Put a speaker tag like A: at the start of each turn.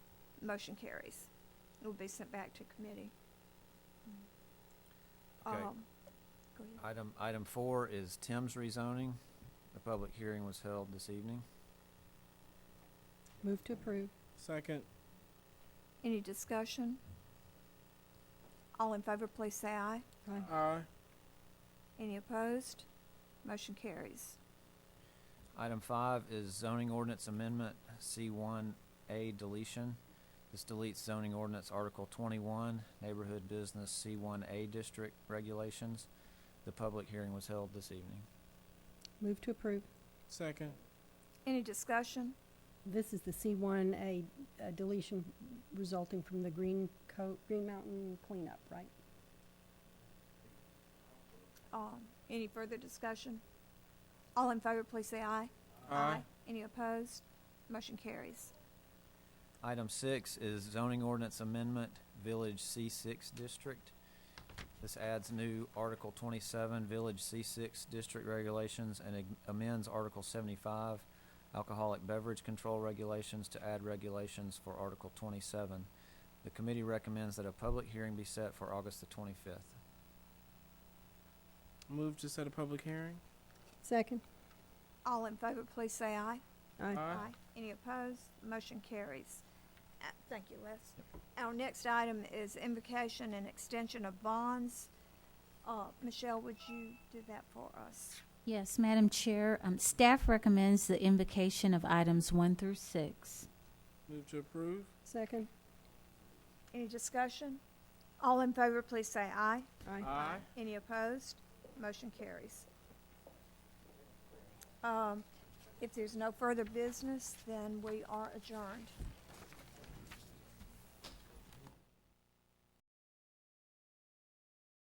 A: Motion carries. It will be sent back to committee.
B: Okay.
A: Um, Go ahead.
B: Item, item four is Tim's rezoning. The public hearing was held this evening.
C: Move to approve.
D: Second.
A: Any discussion? All in favor, please say aye.
C: Aye.
D: Aye.
A: Any opposed? Motion carries.
B: Item five is zoning ordinance amendment C1A deletion. This deletes zoning ordinance Article 21, Neighborhood Business C1A District Regulations. The public hearing was held this evening.
C: Move to approve.
D: Second.
A: Any discussion?
C: This is the C1, a a deletion resulting from the Green Co, Green Mountain cleanup, right?
A: Um, Any further discussion? All in favor, please say aye. Any opposed? Motion carries.
B: Item six is zoning ordinance amendment, Village C6 District. This adds new Article 27, Village C6 District Regulations, and ag- amends Article 75, Alcoholic Beverage Control Regulations, to add regulations for Article 27. The committee recommends that a public hearing be set for August the 25th.
D: Move to set a public hearing.
C: Second.
A: All in favor, please say aye.
C: Aye.
A: Any opposed? Motion carries. Uh, Thank you, Les. Our next item is invocation and extension of bonds. Uh, Michelle, would you do that for us?
E: Yes, Madam Chair, um, staff recommends the invocation of items one through six.
D: Move to approve.
C: Second.
A: Any discussion? All in favor, please say aye.
D: Aye.
A: Any opposed? Motion carries. Um, If there's no further business, then we are adjourned.